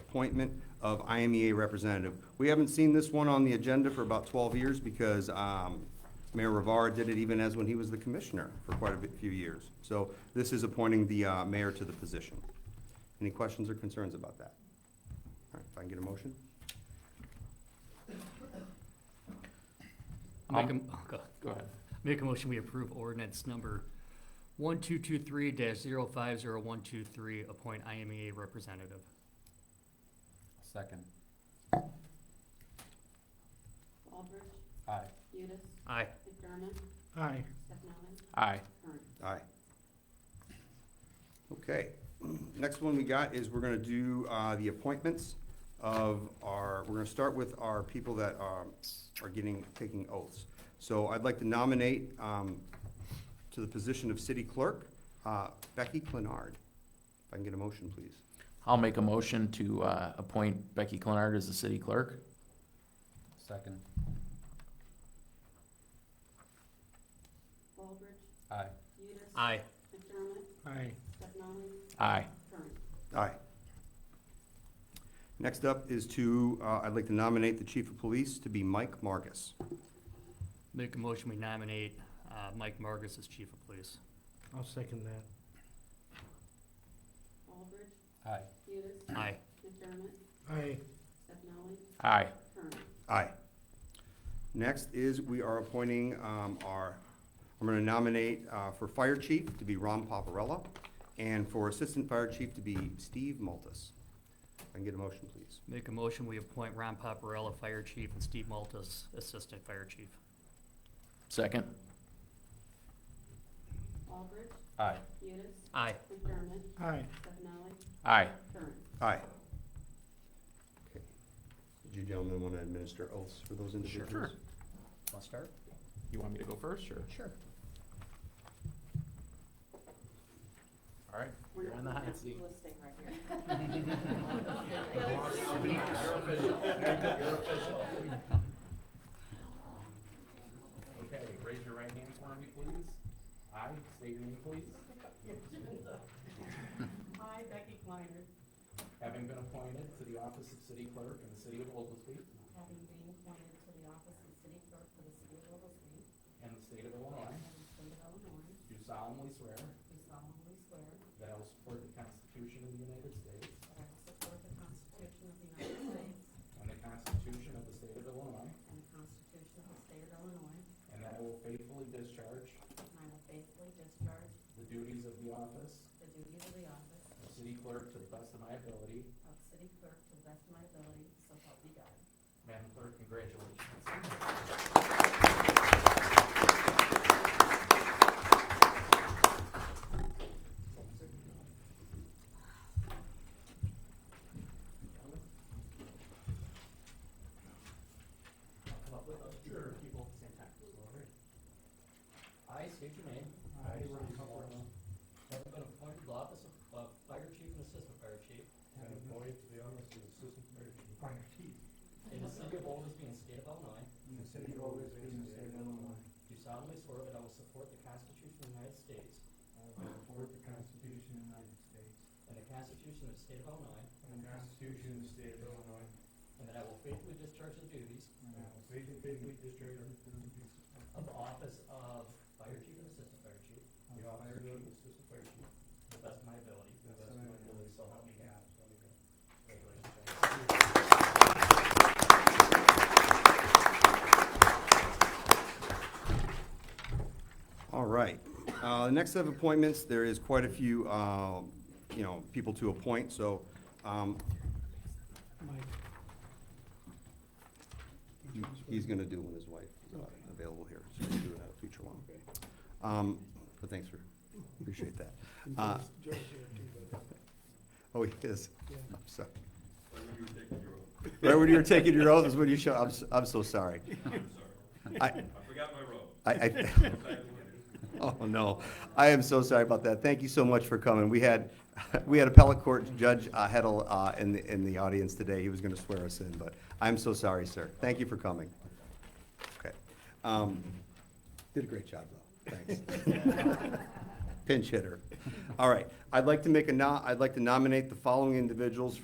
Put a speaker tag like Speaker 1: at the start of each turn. Speaker 1: appointment of IMEA representative. We haven't seen this one on the agenda for about twelve years because um, Mayor Rivera did it even as when he was the commissioner for quite a bit- few years. So this is appointing the uh, mayor to the position. Any questions or concerns about that? All right, if I can get a motion?
Speaker 2: I Make a, oh, go, go ahead. Make a motion, we approve ordinance number one two two three dash zero five zero one two three, appoint IMEA representative.
Speaker 3: Second.
Speaker 4: Aldridge,
Speaker 3: Aye.
Speaker 4: Udis,
Speaker 2: Aye.
Speaker 4: McDermott,
Speaker 5: Aye.
Speaker 4: Stefani,
Speaker 3: Aye.
Speaker 4: Kern.
Speaker 1: Aye. Okay, next one we got is we're gonna do, uh, the appointments of our, we're gonna start with our people that, um, are getting, taking oaths. So I'd like to nominate, um, to the position of city clerk, uh, Becky Clinard. If I can get a motion, please.
Speaker 6: I'll make a motion to uh, appoint Becky Clenard as the city clerk.
Speaker 3: Second.
Speaker 4: Aldridge,
Speaker 3: Aye.
Speaker 4: Udis.
Speaker 2: Aye.
Speaker 4: McDermott,
Speaker 5: Aye.
Speaker 4: Stefani,
Speaker 6: Aye.
Speaker 4: Kern.
Speaker 1: Aye. Next up is to, uh, I'd like to nominate the chief of police to be Mike Margus.
Speaker 2: Make a motion, we nominate, uh, Mike Margus as chief of police.
Speaker 5: I'll second that.
Speaker 4: Aldridge,
Speaker 3: Aye.
Speaker 4: Udis,
Speaker 2: Aye.
Speaker 4: McDermott,
Speaker 5: Aye.
Speaker 4: Stefani,
Speaker 6: Aye.
Speaker 4: Kern.
Speaker 1: Aye. Next is, we are appointing um, our, I'm going to nominate uh, for Fire Chief to be Ron Paparella, and for Assistant Fire Chief to be Steve Maltus. If I can get a motion, please.
Speaker 2: Make a motion, we appoint Ron Paparella, fire chief, and Steve Maltus, assistant fire chief.
Speaker 6: Second.
Speaker 4: Aldridge,
Speaker 3: Aye.
Speaker 4: Udis,
Speaker 2: Aye.
Speaker 4: McDermott,
Speaker 5: Aye.
Speaker 4: Stefani,
Speaker 6: Aye.
Speaker 4: Kern.
Speaker 1: Aye. Okay. Did you gentlemen want to administer oaths for those individuals?
Speaker 6: Want to start? You want me to go first, or?
Speaker 2: Sure.
Speaker 6: All right.
Speaker 4: We're
Speaker 6: You're on the
Speaker 4: not-
Speaker 6: hot seat.
Speaker 4: Let's stay right here.
Speaker 3: Okay, raise your right hand for me, please. I state your name, please.
Speaker 4: I, Becky Kleiner,
Speaker 3: Having been appointed to the office of city clerk in the city of Oglesby
Speaker 4: having been appointed to the office of city clerk for the city of Oglesby
Speaker 3: and the state of Illinois,
Speaker 4: and the state of Illinois,
Speaker 3: do solemnly swear
Speaker 4: do solemnly swear
Speaker 3: that I will support the Constitution of the United States
Speaker 4: that I will support the Constitution of the United States
Speaker 3: and the Constitution of the state of Illinois,
Speaker 4: and the Constitution of the state of Illinois,
Speaker 3: and that I will faithfully discharge
Speaker 4: and I will faithfully discharge
Speaker 3: the duties of the office
Speaker 4: the duties of the office
Speaker 3: of city clerk to the best of my ability.
Speaker 4: of city clerk to the best of my ability, so help me God.
Speaker 3: Madam Clerk, congratulations. Come up with us, sure, people at the same time. I state your name. I, Ron Caporello. Have been appointed to the office of uh, Fire Chief and Assistant Fire Chief
Speaker 7: And employed to the office of Assistant Fire Chief.
Speaker 3: in the city of Oglesby and state of Illinois,
Speaker 7: In the city of Oglesby, in the state of Illinois.
Speaker 3: do solemnly swear that I will support the Constitution of the United States
Speaker 7: I will support the Constitution of the United States.
Speaker 3: and the Constitution of the state of Illinois,
Speaker 7: And the Constitution of the state of Illinois.
Speaker 3: and that I will faithfully discharge the duties
Speaker 7: And I will faithfully discharge the duties
Speaker 3: of the office of Fire Chief and Assistant Fire Chief
Speaker 7: of the office of Assistant Fire Chief.
Speaker 3: to the best of my ability.
Speaker 7: To the best of my ability.
Speaker 3: So help me God. Congratulations.
Speaker 1: All right. Uh, The next set of appointments, there is quite a few, uh, you know, people to appoint, so um,
Speaker 5: Mike.
Speaker 1: He- He's gonna do when his wife is uh, available here, so we'll do it at a future one. Um, but thanks for, appreciate that. Uh,
Speaker 5: Joe's here too, but,
Speaker 1: Oh, he is,
Speaker 5: yeah.
Speaker 1: I'm sorry. Right when you were taking your oath is when you show, I'm, s- I'm so sorry. I,
Speaker 8: I forgot my robe.
Speaker 1: I, I, oh no, I am so sorry about that. Thank you so much for coming. We had, we had appellate court Judge uh, Hedl uh, in the, in the audience today. He was gonna swear us in, but I'm so sorry, sir. Thank you for coming. Okay. Um, Did a great job, though. Thanks. Pinch hitter. All right, I'd like to make a no, I'd like to nominate the following individuals